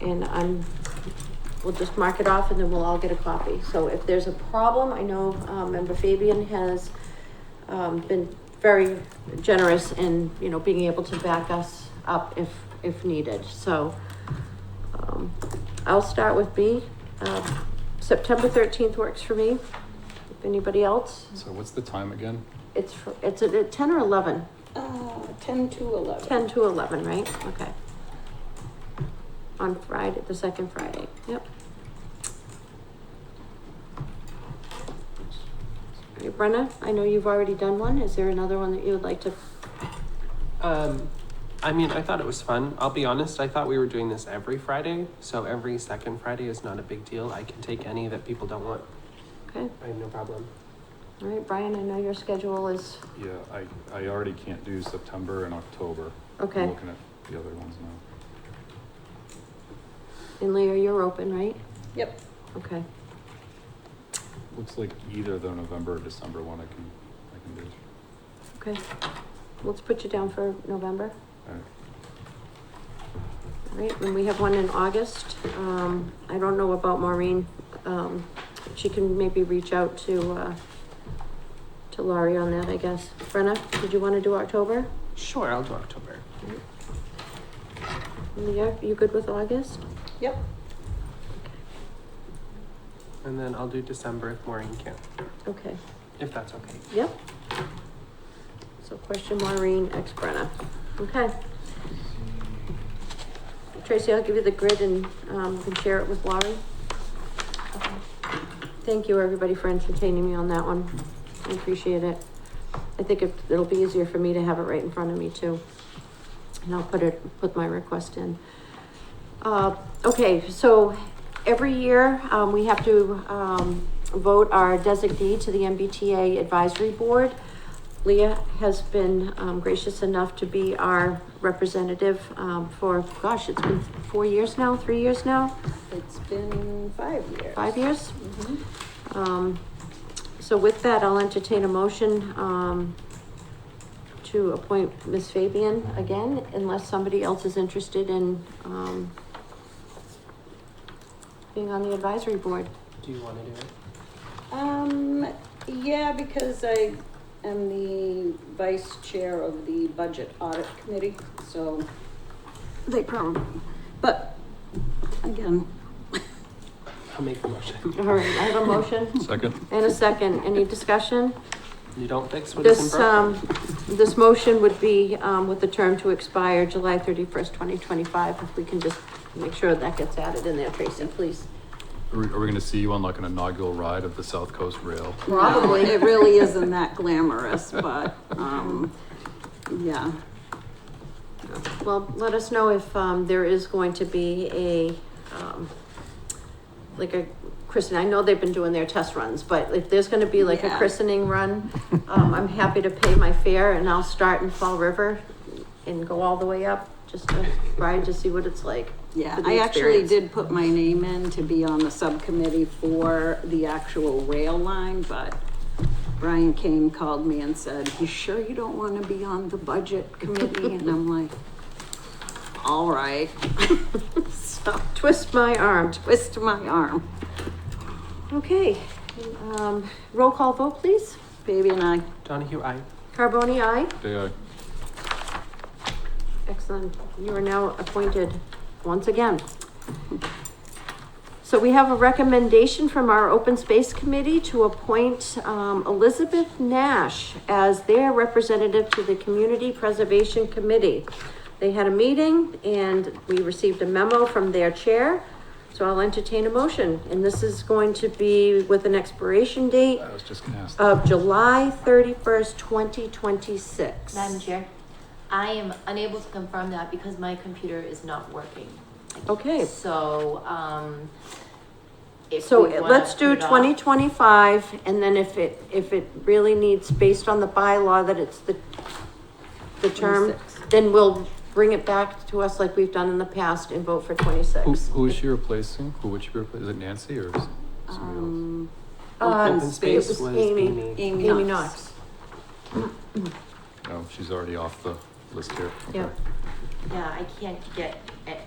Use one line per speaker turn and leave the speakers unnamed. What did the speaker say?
and I'm, we'll just mark it off and then we'll all get a copy. So if there's a problem, I know, um, member Fabian has, um, been very generous in, you know, being able to back us up if, if needed, so. um, I'll start with B, uh, September thirteenth works for me, if anybody else,
So what's the time again?
it's, fr- it's at at ten or eleven?
Uh, ten to eleven.
10 to 11, right? Okay. On Friday, the second Friday, yep. All right, Brenna, I know you've already done one. Is there another one that you would like to?
Um, I mean, I thought it was fun. I'll be honest, I thought we were doing this every Friday, so every second Friday is not a big deal. I can take any that people don't want.
Okay,
I have no problem.
all right, Brian, I know your schedule is,
Yeah, I, I already can't do September and October. I'm
okay.
looking at the other ones now.
And Leah, you're open, right?
Yep.
Okay,
Looks like either the November or December one I can, I can do.
okay. Let's put you down for November.
All right.
All right, and we have one in August. Um, I don't know about Maureen. Um, she can maybe reach out to, uh, to Laurie on that, I guess. Brenna, did you want to do October?
Sure, I'll do October.
Yeah, you good with August?
Yep.
And then I'll do December if Maureen can't,
Okay,
if that's okay.
yep. So question Maureen, ex Brenna. Okay. Tracy, I'll give you the grid and, um, you can share it with Laurie.
Okay.
Thank you, everybody, for entertaining me on that one. I appreciate it. I think it- it'll be easier for me to have it right in front of me too. And I'll put it, put my request in. Uh, okay, so every year, um, we have to, um, vote our designee to the MBTA Advisory Board. Leah has been, um, gracious enough to be our representative, um, for, gosh, it's been four years now, three years now,
It's been five years.
five years?
Mhm.
Um, so with that, I'll entertain a motion, um, to appoint Ms. Fabian again, unless somebody else is interested in, um, being on the advisory board.
Do you want to do it?
Um, yeah, because I am the vice chair of the Budget Audit Committee, so they probably, but again,
I'll make the motion.
All right, I have a motion
Hmm. Second?
and a second. Any discussion?
You don't fix what is
This,
in broken.
um, this motion would be, um, with the term to expire July thirty-first, twenty twenty-five. If we can just make sure that gets added in there, Tracy, please.
Are we, are we gonna see you on like an inaugural ride of the South Coast Rail?
probably, it really isn't that glamorous, but, um, yeah.
Well, let us know if, um, there is going to be a, um, like a, christening. I know they've been doing their test runs, but if there's gonna be like a
Yeah.
christening run, um, I'm happy to pay my fare and I'll start in Fall River and go all the way up, just to ride to see what it's like.
Yeah,
for the
I actually
experience.
did put my name in to be on the subcommittee for the actual rail line, but Brian Kane called me and said, you sure you don't want to be on the budget committee? And I'm like, all right. So
Twist my arm.
twist my arm,
Okay, um, roll call vote, please.
baby and I.
Donahue, I.
Carboni, aye.
Day I,
Excellent. You are now appointed once again. So we have a recommendation from our Open Space Committee to appoint um, Elizabeth Nash as their representative to the Community Preservation Committee. They had a meeting and we received a memo from their chair. So I'll entertain a motion, and this is going to be with an expiration date
I was just gonna ask.
of July thirty-first, twenty twenty-six.
Madam Chair, I am unable to confirm that because my computer is not working.
Okay,
So, um, if
so uh,
we wanna
let's do
put it off-
twenty twenty-five, and then if it, if it really needs, based on the bylaw that it's the, the term,
26.
then we'll bring it back to us like we've done in the past and vote for
Who,
twenty-six.
who is she replacing? Who would she replace? Is it Nancy or is it somebody else?
Um,
Uh,
Open
it
space
was
was,
Amy.
Amy.
Amy
Amy
Knox.
Knox,
Oh, No, she's already off the list here. Okay.
yeah.
Yeah, I can't get,